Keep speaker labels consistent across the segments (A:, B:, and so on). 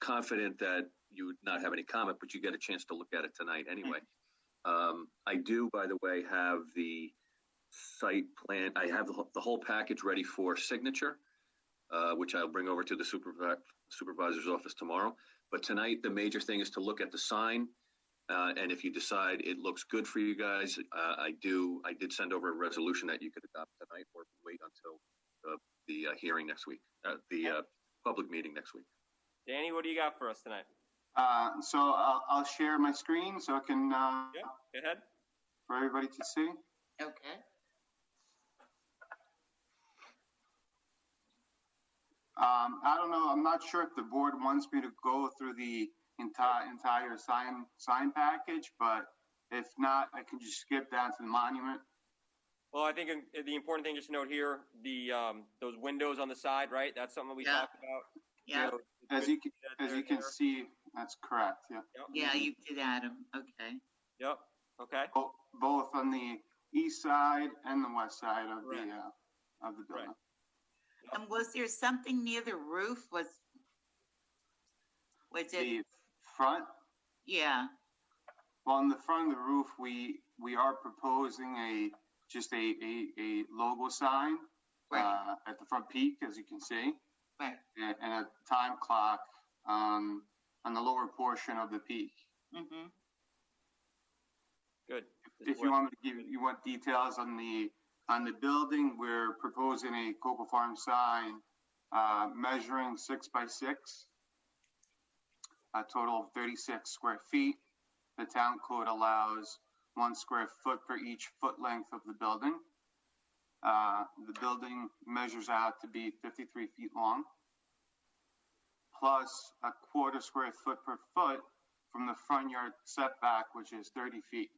A: confident that you would not have any comment, but you get a chance to look at it tonight anyway. Um, I do, by the way, have the site plan, I have the whole- the whole package ready for signature, uh, which I'll bring over to the supervi- supervisor's office tomorrow. But tonight, the major thing is to look at the sign. Uh, and if you decide it looks good for you guys, uh, I do, I did send over a resolution that you could adopt tonight or wait until uh, the uh, hearing next week, uh, the uh, public meeting next week.
B: Danny, what do you got for us tonight?
C: Uh, so I'll, I'll share my screen so I can, uh,
B: Yeah, go ahead.
C: for everybody to see.
D: Okay.
C: Um, I don't know, I'm not sure if the board wants me to go through the entire, entire sign, sign package, but if not, I can just skip down to the monument.
B: Well, I think uh, the important thing just to note here, the, um, those windows on the side, right? That's something we
D: Yeah.
B: talked about.
D: Yeah,
B: So,
C: As you, can-
B: that
C: as
B: they're
C: you can
B: there.
C: see, that's correct, yeah.
B: Yep.
D: yeah, you did Adam. Okay.
B: Yep, okay,
C: Bo- Both on the east side and the west side of
B: Correct.
C: the, uh, of the building.
D: And was there something near the roof? Was, was it,
C: The front,
D: yeah,
C: Well, on the front of the roof, we, we are proposing a, just a, a, a logo sign
D: right,
C: uh, at the front peak, as you can see,
D: right.
C: and and a time clock um, on the lower portion of the peak.
D: Mm-hmm.
B: good.
C: If you want me to give, you want details on the, on the building, we're proposing a Cocoa Farm sign uh, measuring six by six, a total of 36 square feet. The town code allows one square foot per each foot length of the building. Uh, The building measures out to be 53 feet long, plus a quarter square foot per foot from the front yard setback, which is 30 feet.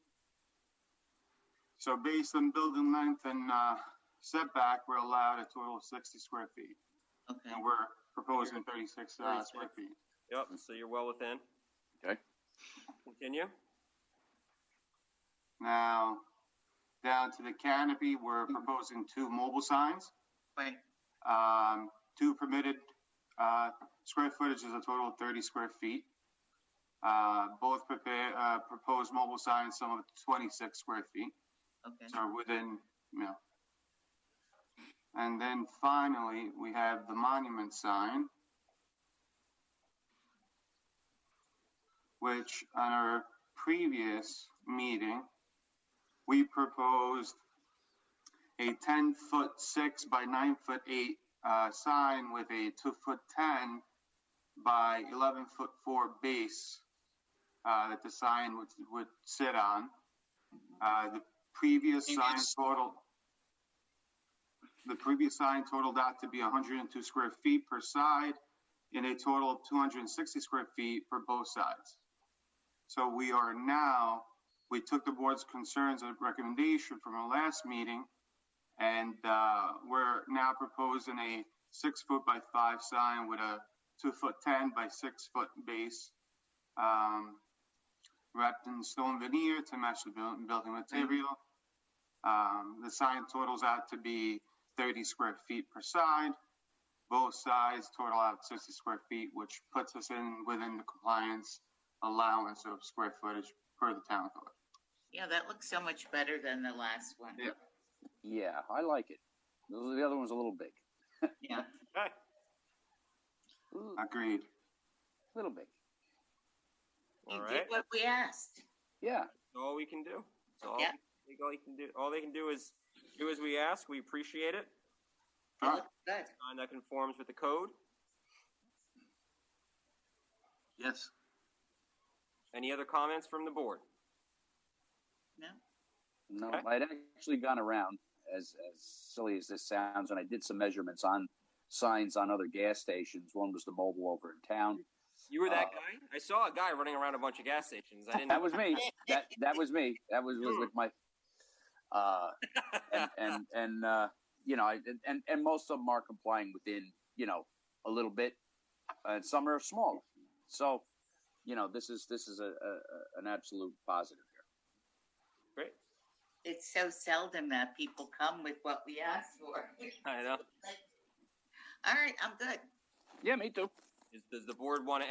C: So based on building length and uh, setback, we're allowed a total of 60 square feet.
D: Okay.
C: And we're proposing 36 uh, square feet.
B: Yep, so you're well within.
A: Okay.
B: Continue.
C: Now, down to the canopy, we're proposing two mobile signs.
D: Right,
C: Um, two permitted, uh, square footage is a total of thirty square feet. Uh, both prepare, uh, proposed mobile signs, some of twenty-six square feet,
D: okay.
C: so are within, you know. And then finally, we have the monument sign, which on our previous meeting, we proposed a ten foot six by nine foot eight uh, sign with a two foot ten by eleven foot four base uh, that the sign would would sit on. Uh, the previous sign
D: Previous-
C: total. The previous sign totaled out to be 102 square feet per side, and a total of 260 square feet for both sides. So we are now, we took the board's concerns and recommendation from our last meeting, and uh, we're now proposing a six foot by five sign with a two foot ten by six foot base, um, wrapped in stone veneer to match the buil- building material. Um, the sign totals out to be thirty square feet per side. Both sides total out sixty square feet, which puts us in within the compliance allowance of square footage per the town code.
D: Yeah, that looks so much better than the last one.
C: Yeah.
E: Yeah, I like it. Those, the other one's a little big.
D: Yeah,
B: Okay,
E: Ooh,
C: Agreed.
E: little big.
B: all
D: you
B: right.
D: did what we asked.
E: Yeah.
B: That's all we can do. That's all,
D: Yeah.
B: we- all they can do. All they can do is do as we ask. We appreciate it,
D: It
C: All right.
D: looked good.
B: and that conforms with the code.
A: Yes.
B: Any other comments from the board?
D: No?
E: No,
B: Okay.
E: I'd actually gone around, as, as silly as this sounds, and I did some measurements on signs on other gas stations. One was the mobile over in town.
B: You were that
E: Uh,
B: guy. I saw a guy running around a bunch of gas stations. I didn't.
E: That was me. That that was me. That was, was with my. Uh, and and and uh, you know, I- and and most of them are complying within you know a little bit, and some are smaller. So, you know, this is this is a, a a- an absolute positive here.
B: great.
D: It's so seldom that people come with what we asked for.
B: I know.
D: All right, I'm good.
E: Yeah, me too.
B: Is, does the board want to